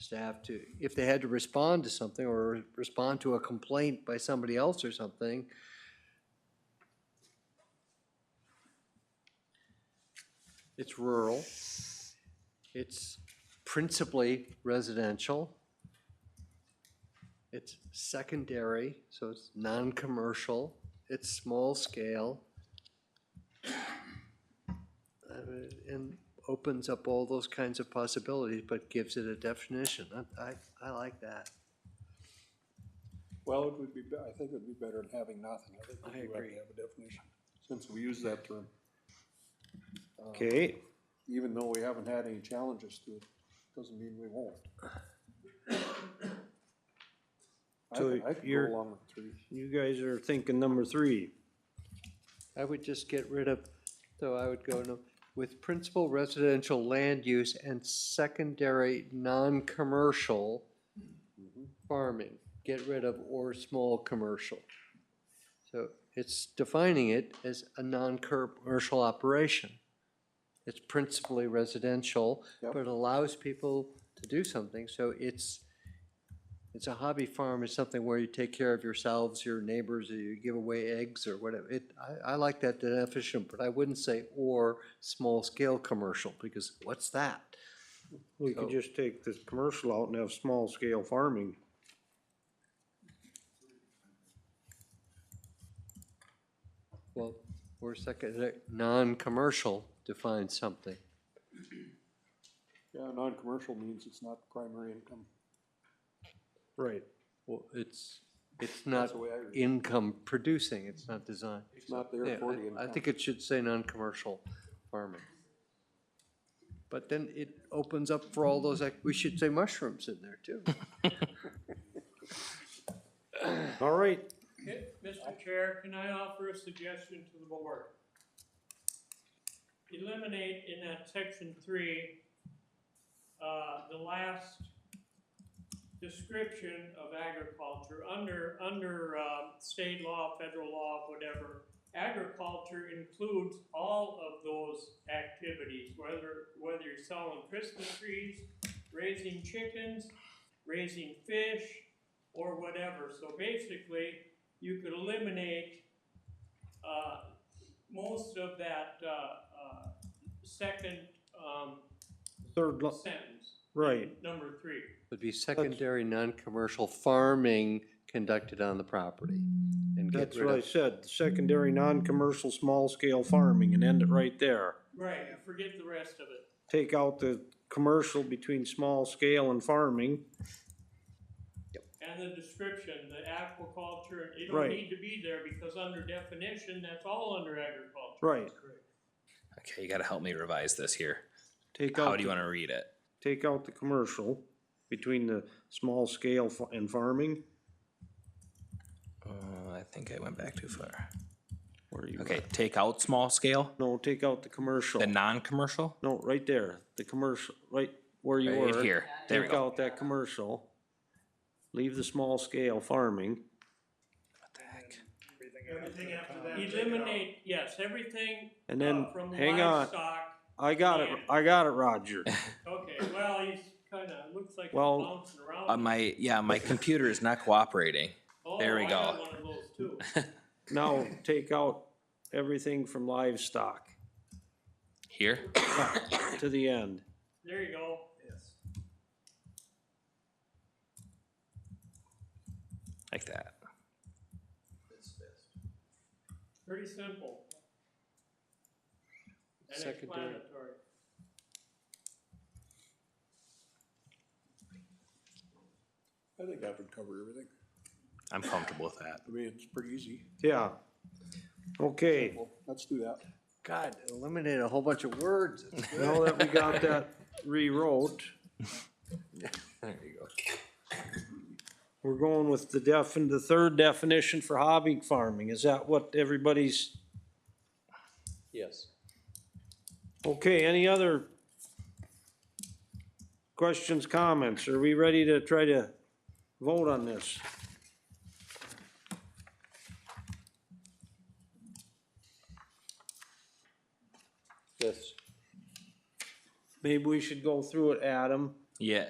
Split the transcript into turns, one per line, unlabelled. staff to, if they had to respond to something or respond to a complaint by somebody else or something, it's rural, it's principally residential, it's secondary, so it's non-commercial, it's small scale. Uh, And opens up all those kinds of possibilities, but gives it a definition. I- I, I like that.
Well, it would be, be- I think it would be better than having nothing. I think
I
we do have
agree.
to have a definition, since we use that term,
Okay,
even though we haven't had any challenges to it, doesn't mean we won't. I
So
could, I could
you're-
go along with three.
you guys are thinking number three.
I would just get rid of, so I would go no- with principal residential land use and secondary non-commercial farming. Get rid of or small commercial. So it's defining it as a non-commercial operation. It's principally residential,
Yep.
but it allows people to do something, so it's, it's a hobby farm, it's something where you take care of yourselves, your neighbors, or you give away eggs or whatever. It, I, I like that definition, but I wouldn't say or small-scale commercial, because what's that?
We could
So-
just take this commercial out and have small scale farming.
Well, we're second, uh, non-commercial defines something.
Yeah, non-commercial means it's not primary income.
Right.
Well, it's, it's
That's
not
the way I read it.
income producing, it's not designed.
It's not
Yeah,
there for the
I- I
income.
think it should say non-commercial farming. But then it opens up for all those, ac- we should say mushrooms in there too.
All right,
Okay, Mr. Chair, can I offer a suggestion to the board? Eliminate in that section three, uh, the last description of agriculture, under, under, um, state law, federal law, whatever. Agriculture includes all of those activities, whether, whether you're selling Christmas trees, raising chickens, raising fish, or whatever. So basically, you could eliminate uh, most of that uh, uh, second um,
third, lo-
sentence,
right,
number three.
Would be secondary, non-commercial farming conducted on the property. and get
that's
rid
what I
of-
said, secondary, non-commercial, small scale farming and end it right there.
Right, you forget the rest of it.
Take out the commercial between small scale and farming.
And the description, the aquaculture, it
Right.
don't need to be there because under definition, that's all under agriculture.
Right.
Okay, you gotta help me revise this here.
Take
How
out,
do
the-
you wanna read it?
take out the commercial between the small scale fa- and farming.
Uh, I think I went back too far. Okay, take out small scale,
No, take out the commercial.
the non-commercial,
No, right there, the commercial, right where you
right
were.
here, there we
Take
go.
out that commercial. Leave the small scale farming.
What the heck?
Everything after that. Eliminate, yes, everything
And then,
Oh,
uh, from
hang on,
livestock.
I got it, I got it, Roger.
Okay, well, he's kinda, looks like he's
Well,
bouncing around.
Uh, my, yeah, my computer is not cooperating.
Oh,
there we
I got
go.
one of those too.
Now, take out everything from livestock
Here?
to the end.
There you go. Yes.
Like that.
Pretty simple. And
Secondary.
explanatory.
I think that would cover everything.
I'm comfortable with that.
I mean, it's pretty easy.
Yeah. Okay,
Well, let's do that.
God, eliminate a whole bunch of words.
now that we got that rewrote,
There you go.
we're going with the def, the third definition for hobby farming. Is that what everybody's,
Yes.
okay, any other questions, comments? Are we ready to try to vote on this?
Yes.
Maybe we should go through it, Adam.
Yeah,